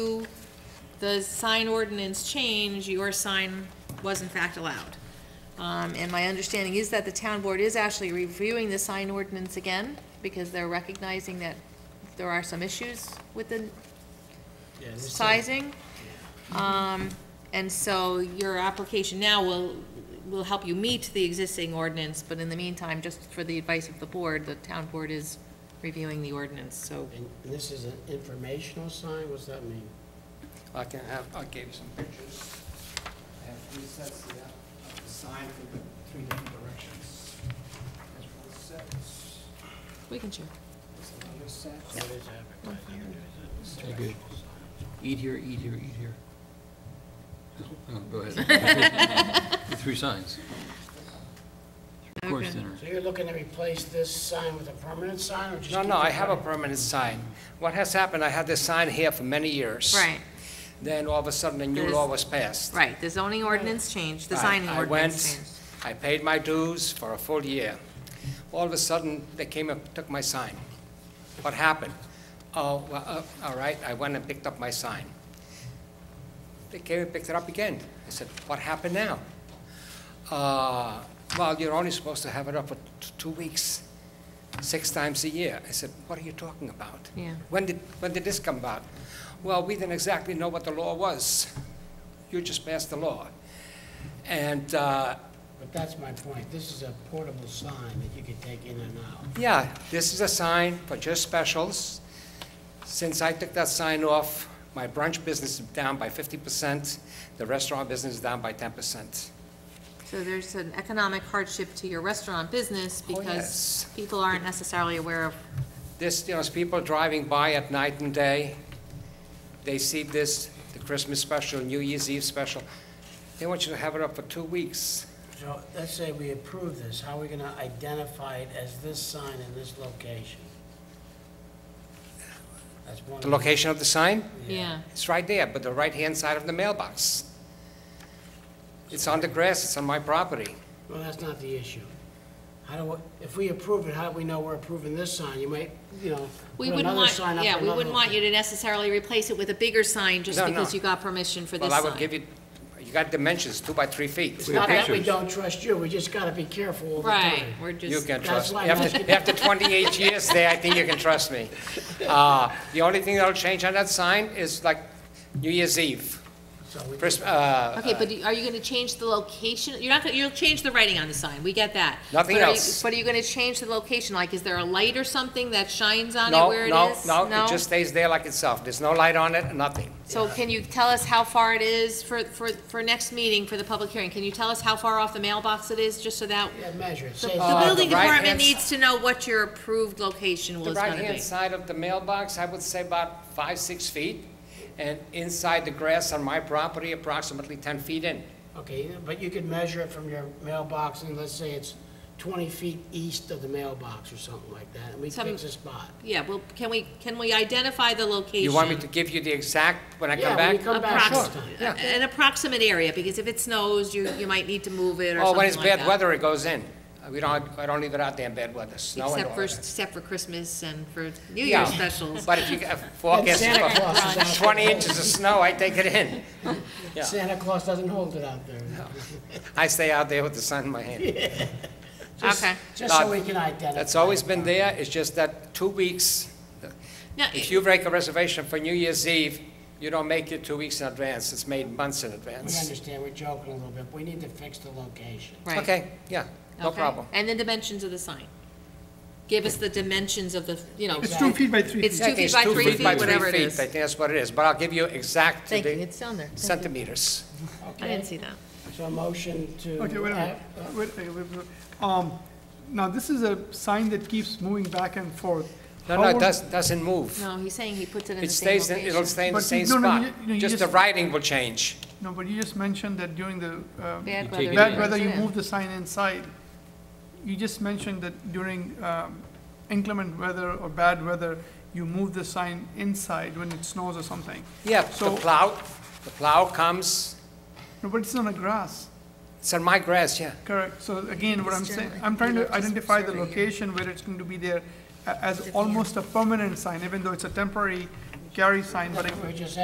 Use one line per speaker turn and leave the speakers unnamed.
to the sign ordinance change, your sign was in fact allowed. Um, and my understanding is that the town board is actually reviewing the sign ordinance again, because they're recognizing that there are some issues with the
Yeah, this is-
sizing. Um, and so your application now will, will help you meet the existing ordinance, but in the meantime, just for the advice of the board, the town board is reviewing the ordinance, so.
And and this is an informational sign, what's that mean?
I can have, I gave you some pictures. I have three sets of that, of the sign from the three different directions. There's one set, there's
We can share.
another set.
What is advertising? What is it?
Okay. Eat here, eat here, eat here. Oh, Go ahead. The Three signs. Of course,
Okay.
dinner.
So you're looking to replace this sign with a permanent sign, or just?
No,
keep
no, I
it
have a
permanent?
permanent sign. What has happened, I had this sign here for many years.
Right,
Then all of a sudden, a new
There's-
law was passed.
right, the zoning ordinance changed, the
Right,
signing
I
ordinance
went-
changed.
I paid my dues for a full year. All of a sudden, they came and took my sign. What happened? Oh, well, uh, all right, I went and picked up my sign. They came and picked it up again. I said, what happened now? Uh, Well, you're only supposed to have it up for t- two weeks, six times a year. I said, what are you talking about?
Yeah.
When did, when did this come about? Well, we didn't exactly know what the law was. You just passed the law. And uh,
But that's my point, this is a portable sign that you could take in and out.
Yeah, this is a sign for just specials. Since I took that sign off, my brunch business is down by 50%, the restaurant business is down by 10%.
So there's an economic hardship to your restaurant business
Oh,
because
yes.
people aren't necessarily aware of,
This, you know, as people driving by at night and day, they see this, the Christmas special, New Year's Eve special, they want you to have it up for two weeks.
So let's say we approve this, how are we gonna identify it as this sign in this location? That's one.
The location of the sign,
yeah,
it's right there, but the right-hand side of the mailbox. It's on the grass, it's on my property.
Well, that's not the issue. How do, we- if we approve it, how do we know we're approving this sign? You might, you know, put
we wouldn't
another
want,
sign up.
yeah,
for
we
another
wouldn't want you
location.
to necessarily replace it with a bigger sign just
No, no.
because you got permission for this
Well,
sign.
I would give you, you got dimensions, two by three
It's
feet.
not that we
pictures.
don't trust you, we just gotta be careful all the time.
Right, we're
You
just,
can
that's
trust, me.
why I'm
after,
asking-
after 28 years there, I think you can trust me. Uh, The only thing that'll change on that sign is like New Year's Eve,
So we-
Christ- uh,
okay, but do- are you gonna change the location? You're not, gonna you'll change the writing on the sign, we get that.
Nothing
But are you-
else.
But are you gonna change the location? Like, is there a light or something that shines on it
no,
where it
no,
is?
no, it just stays there like itself. There's no light on it, nothing.
So can you tell us how far it is for, for, for next meeting, for the public hearing? Can you tell us how far off the mailbox it is, just so that?
Yeah, measure it,
The
say,
the building
Uh, the right
department
hand-
needs to know what your approved location
The
was gonna
right-hand
be.
side of the mailbox, I would say about five, six feet, and inside the grass on my property, approximately 10 feet in.
okay, but you could measure it from your mailbox, and let's say it's twenty feet east of the mailbox or something like that, and we
Some-
fix a spot.
Yeah, well, can we, can we identify the location?
You want me to give you the exact, when I
Yeah,
come
when
back?
you come back
Sure,
next time.
yeah.
uh, An approximate area, because if it snows, you, you might need to move it or
Oh,
something
when it's
like
bad
that.
weather, it goes in. Uh, We don't, I don't leave it out there in bad weather, snow and
Except
all
for,
that.
except for Christmas and for New
Yeah,
Year's specials.
But if you get a
And
forecast
Santa Claus is out there.
of twenty inches of snow, I take it in. Yeah.
Santa Claus doesn't hold it out there.
I stay out there with the sun in my hand.
Just-
Okay.
Just so
Uh,
we can identify.
That's always been there, it's just that two weeks,
Now,
if you make a reservation for New Year's Eve, you don't make it two weeks in advance, it's made months in
We
advance.
understand, we're joking a little bit, we need to fix the location.
right,
Okay, yeah, no
okay.
problem.
And the dimensions of the sign. Give us the dimensions of the, you know.
It's two
feet by three
It's two
Yeah,
feet
it's
by three feet, whatever it
feet,
is.
I think that's what it is, but I'll give you exact
Thank you,
the
it's down there. Thank you.
centimeters.
I
Okay.
didn't see that.
So a motion to.
Okay, wait a minute,
uh, uh,
wait, wait, wait, wait. Um, now this is a sign that keeps moving back and forth.
No,
How
no, it
would-
does doesn't move.
No, he's saying he puts it in the
It
same
stays, in-
location.
it'll stay in the
But
same
no, no,
spot,
you- no, you
just the
just-
writing will change.
No, but you just mentioned that during the, uh,
Bad
You
weather.
take it
bad
in.
weather, you
Yeah.
move the sign inside. You just mentioned that during, um, inclement weather or bad weather, you move the sign inside when it snows or something.
Yeah, the
So-
plow, the plow comes,
No, but it's on a grass,
it's on my grass, yeah.
correct? So again, what I'm
It's
saying,
generally-
I'm trying
you
to
know, just
identify the
survey.
location where it's going to be there a- as almost a permanent sign, even though it's a temporary carry sign, but it
We're just